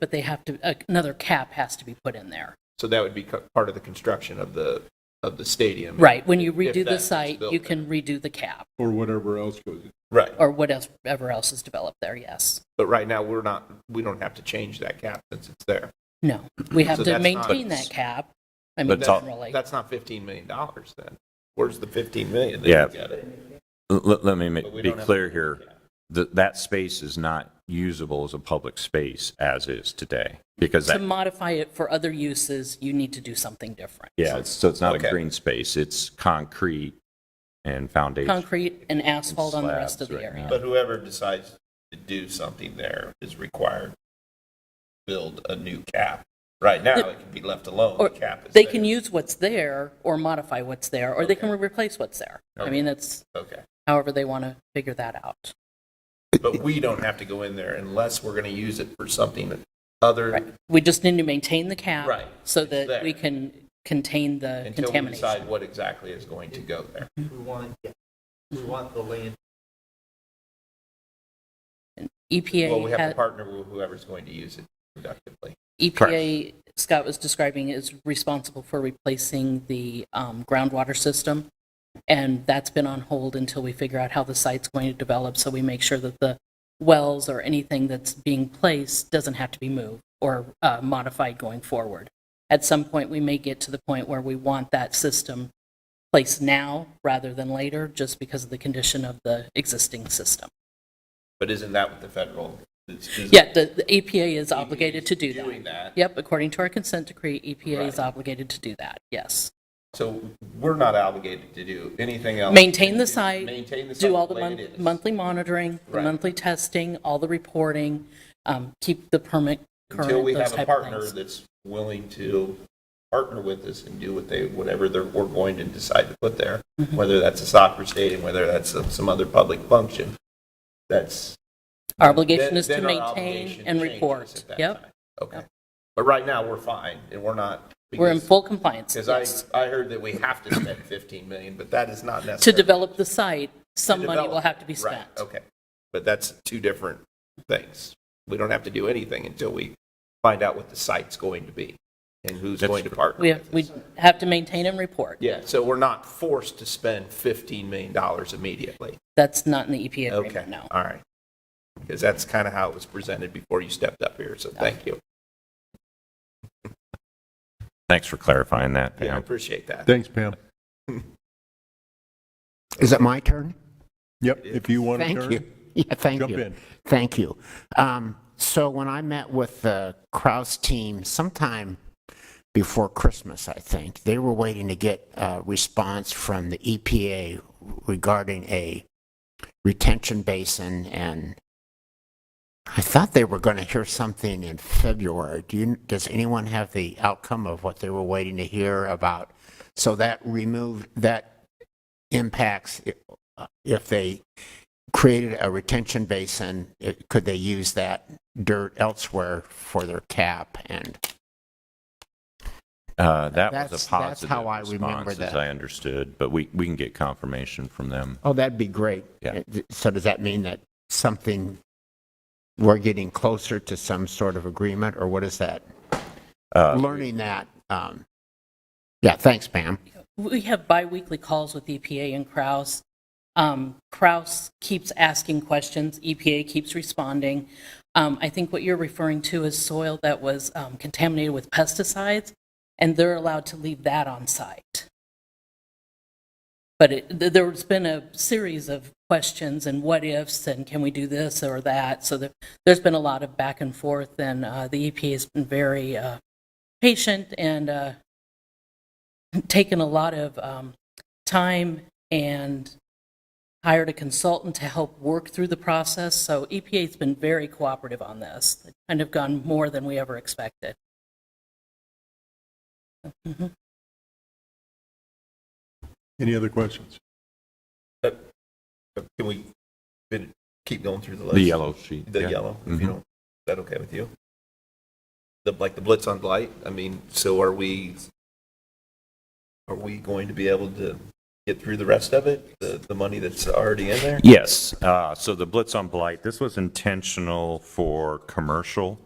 but they have to, another cap has to be put in there. So that would be co- part of the construction of the, of the stadium. Right, when you If redo that the is site, built you there. can redo the cap, or whatever else goes. Right. or whatever else is developed there, yes. But right now, we're not, we don't have to change that cap since it's there. No, we have So to that's not- maintain that cap, I mean, But it's all- generally. That's not $15 million then. Where's the 15 million? that Yeah. you got it? Let, let me ma- But we be don't have- clear here, that, that space is not usable as a public space as is today, because To that, modify it for other uses, you need to do something different. yeah, it's- so it's not a Okay. green space, it's concrete and foundation. Concrete and asphalt on the rest of Slabs the right area. now. But whoever decides to do something there is required to build a new cap. Right now, it can be left alone, the Or cap is they there. can use what's there or modify what's there, or they can replace what's there. I mean, that's Okay. however they want to figure that out. But we don't have to go in there unless we're going to use it for something other Right. We just need to maintain the cap. Right. So It's that there. we can contain the until we contamination. decide what exactly is going to go there. We want, yeah, we want the land. E Well, EPA, we have to had- partner with whoever's going to use it productively. EPA, E Scott was describing, is responsible for replacing the um, groundwater system. And that's been on hold until we figure out how the site's going to develop. So we make sure that the wells or anything that's being placed doesn't have to be moved or uh, modified going forward. At some point, we may get to the point where we want that system placed now rather than later, just because of the condition of the existing system. But isn't that what the federal? is- is- Yeah, the, the EPA is obligated to do that. Doing that. Yep, according to our consent decree, EPA is Right. obligated to do that, yes. So we're not obligated to do anything else. Maintain the site. Maintain the site. Do all the way mon- it is. monthly monitoring, the Right. monthly testing, all the reporting, um, keep the permit Until we current, those have a type of partner things. that's willing to partner with us and do what they, whatever they're, we're going to decide to put there, Mm-hmm. whether that's a soccer stadium, whether that's some, some other public function. That's. Our obligation is to then- then our maintain obligation and changes report, at that yep. time. Okay. But right now, we're fine and we're not. We're in because- full compliance, yes. Because I, I heard that we have to spend 15 million, but that is not To necessary. develop the site, To some money develop will it. have to be Right, spent. okay. But that's two different things. We don't have to do anything until we find out what the site's going to be and who's That's going to true. partner We have, with we us. have to maintain and report. Yeah, so we're not forced to spend $15 million immediately. That's not in the EPA Okay, agreement, no. all right. Because that's kind of how it was presented before you stepped up here, so thank you. Thanks for clarifying that, Yeah, I Pam. appreciate that. Thanks, Pam. Is it my turn? Yep, if you want to Thank you. turn. Yeah, thank Jump you. in. Thank you. Um, so when I met with the Kraus team sometime before Christmas, I think, they were waiting to get a response from the EPA regarding a retention basin and I thought they were going to hear something in February. Do you, does anyone have the outcome of what they were waiting to hear about? So that removed, that impacts i- uh, if they created a retention basin, it- could they use that dirt elsewhere for their cap? And Uh, that was That's- a that's positive how I remember response, as that. I understood, but we, we can get confirmation from them. Oh, that'd be great. Yeah. So does that mean that something, we're getting closer to some sort of agreement, or what is that? Uh, Learning that, um, yeah, thanks, Pam. we have biweekly calls with EPA and Kraus. Um, Kraus keeps asking questions, EPA keeps responding. Um, I think what you're referring to is soil that was um, contaminated with pesticides, and they're allowed to leave that on site. But it, th- there's been a series of questions and what ifs, and can we do this or that? So there, there's been a lot of back and forth, and uh, the EPA has been very uh, patient and uh, taken a lot of um, time and hired a consultant to help work through the process. So E EPA's been very cooperative on this. They've kind of gone more than we ever expected. Any other questions? Can we fin- keep going through the uh, Mm-hmm. list? The yellow sheet. The yeah. yellow, if you Mhm. don't, is that okay with you? The, like the blitz on blight, I mean, so are we, are we going to be able to get through the rest of it? The, the money that's already in there? Yes, uh, so the Blitz on Blight, this was intentional for commercial